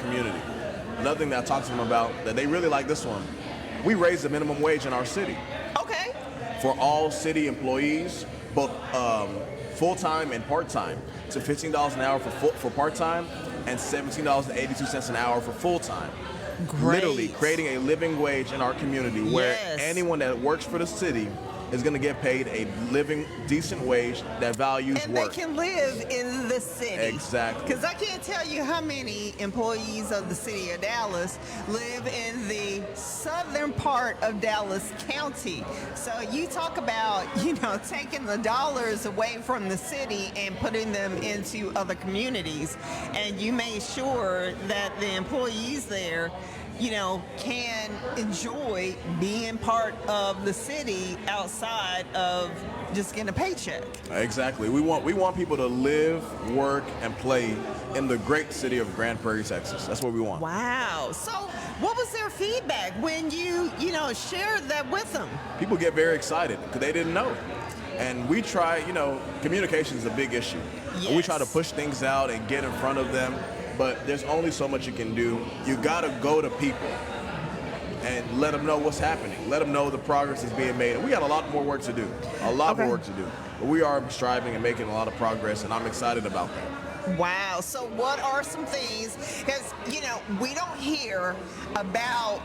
community. Another thing that I talked to them about that they really like this one. We raised the minimum wage in our city Okay. for all city employees, both um, full time and part time, to fifteen dollars an hour for full, for part time and seventeen dollars and eighty two cents an hour for full time. Literally Great. creating a living wage in our community where Yes. anyone that works for the city is going to get paid a living decent wage that values And work. they can live in the city. Exactly. Because I can't tell you how many employees of the city of Dallas live in the southern part of Dallas County. So you talk about, you know, taking the dollars away from the city and putting them into other communities. And you made sure that the employees there you know, can enjoy being part of the city outside of just getting a paycheck. Exactly. We want we want people to live, work, and play in the great city of Grand Prairie, Texas. That's what we want. Wow. So, what was their feedback when you, you know, shared that with them? People get very excited because they didn't know. And we try, you know, communication is a big issue. And we try to Yes. push things out and get in front of them, but there's only so much you can do. You gotta go to people and let them know what's happening. Let them know the progress is being made. And we got a lot more work to do. A lot Okay. more work to do. But we are striving and making a lot of progress, and I'm excited about that. Wow. So, what are some things? Because, you know, we don't hear about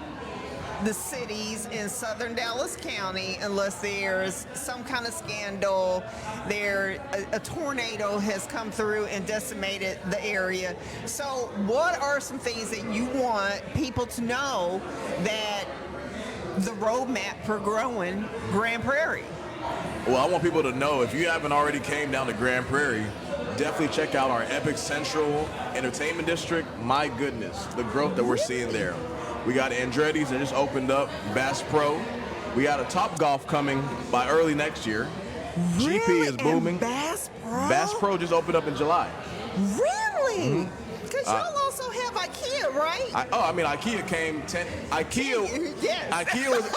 the cities in southern Dallas County unless there's some kind of scandal. There, a, a tornado has come through and decimated the area. So, what are some things that you want people to know that the roadmap for growing Grand Prairie? Well, I want people to know if you haven't already came down to Grand Prairie, definitely check out our Epic Central Entertainment District. My goodness, the growth that we're seeing there. We got Andretti's that just opened up, Bass Pro. We got a Top Golf coming by early next year. GP Really? is And booming. Bass Pro. Bass Pro just opened up in July. Really? Mm-hmm. Because Uh, y'all also have IKEA, right? I, oh, I mean, IKEA came ten. IKEA. Yes. IKEA was.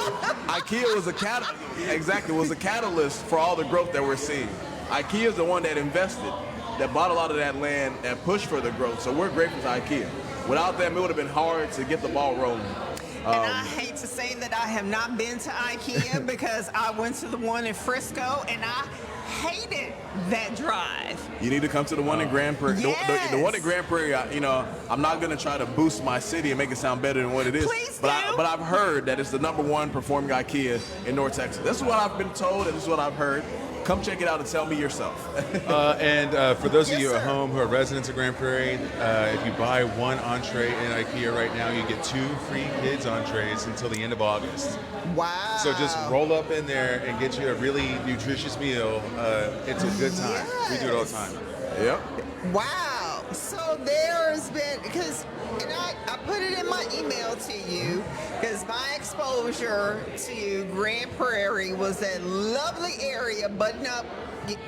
IKEA was a cat. Exactly, was a catalyst for all the growth that we're seeing. IKEA is the one that invested, that bought a lot of that land, that pushed for the growth. So we're grateful to IKEA. Without them, it would have been hard to get the ball rolling. And Um, I hate to say that I have not been to IKEA because I went to the one in Frisco and I hated that drive. You need to come to the one in Grand Prairie. The, the, the one in Yes. Grand Prairie, I, you know, I'm not gonna try to boost my city and make it sound better than what it is. Please but I, do. but I've heard that it's the number one performing IKEA in North Texas. This is what I've been told, and this is what I've heard. Come check it out and tell me yourself. Uh, and uh, for those Yes, of you at sir. home who are residents of Grand Prairie, uh, if you buy one entree in IKEA right now, you get two free kids entrees until the end of August. Wow. So just roll up in there and get you a really nutritious meal. Uh, it's a good time. We do it all the Yes. time. yep. Wow. So there's been because and I, I put it in my email to you because my exposure to Grand Prairie was that lovely area button up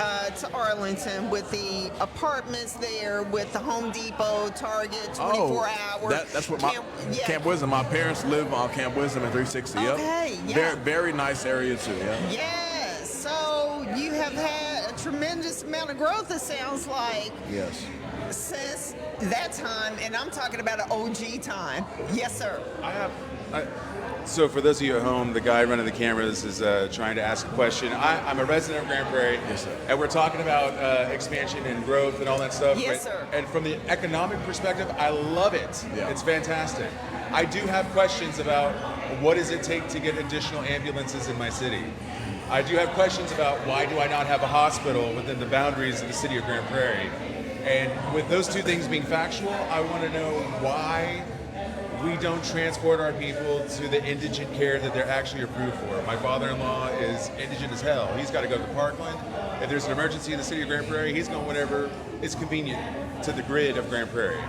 uh, to Arlington with the apartments there with the Home Depot, Target, 24 hour. Oh, that- that's what my Camp- Camp, yeah. Wisdom. My parents live on Camp Wisdom at 360. Yep. Okay, yeah. Very very nice area too. Yeah. Yes. So you have had a tremendous amount of growth, it sounds like. Yes. since that time, and I'm talking about an OG time. Yes, sir. I have. I, so for those of you at home, the guy running the cameras is uh, trying to ask a question. I, I'm a resident of Grand Prairie, Yes, sir. and we're talking about uh, expansion and growth and all that stuff. Yes, but- sir. And from the economic perspective, I love it. Yeah. It's fantastic. I do have questions about what does it take to get additional ambulances in my city. I do have questions about why do I not have a hospital within the boundaries of the city of Grand Prairie. And with those two things being factual, I want to know why we don't transport our people to the indigent care that they're actually approved for. My father-in-law is indigent as hell. He's got to go to Parkland. If there's an emergency in the city of Grand Prairie, he's going whenever is convenient to the grid of Grand Prairie.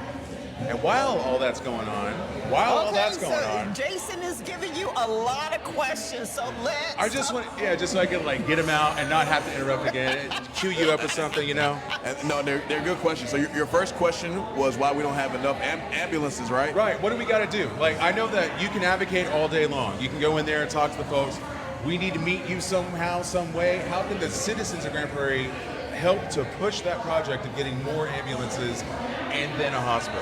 And while all that's going on, while all that's going so on, Jason is giving you a lot of questions, so let's. I just want yeah, just so I can like get him out and not have to interrupt again, cue you up with something, you know? And, no, they're, they're good questions. So your, your first question was why we don't have enough am- ambulances, right? Right. What do we got to do? Like, I know that you can advocate all day long. You can go in there and talk to the folks. We need to meet you somehow, some way. How can the citizens of Grand Prairie help to push that project of getting more ambulances and then a hospital?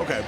Okay.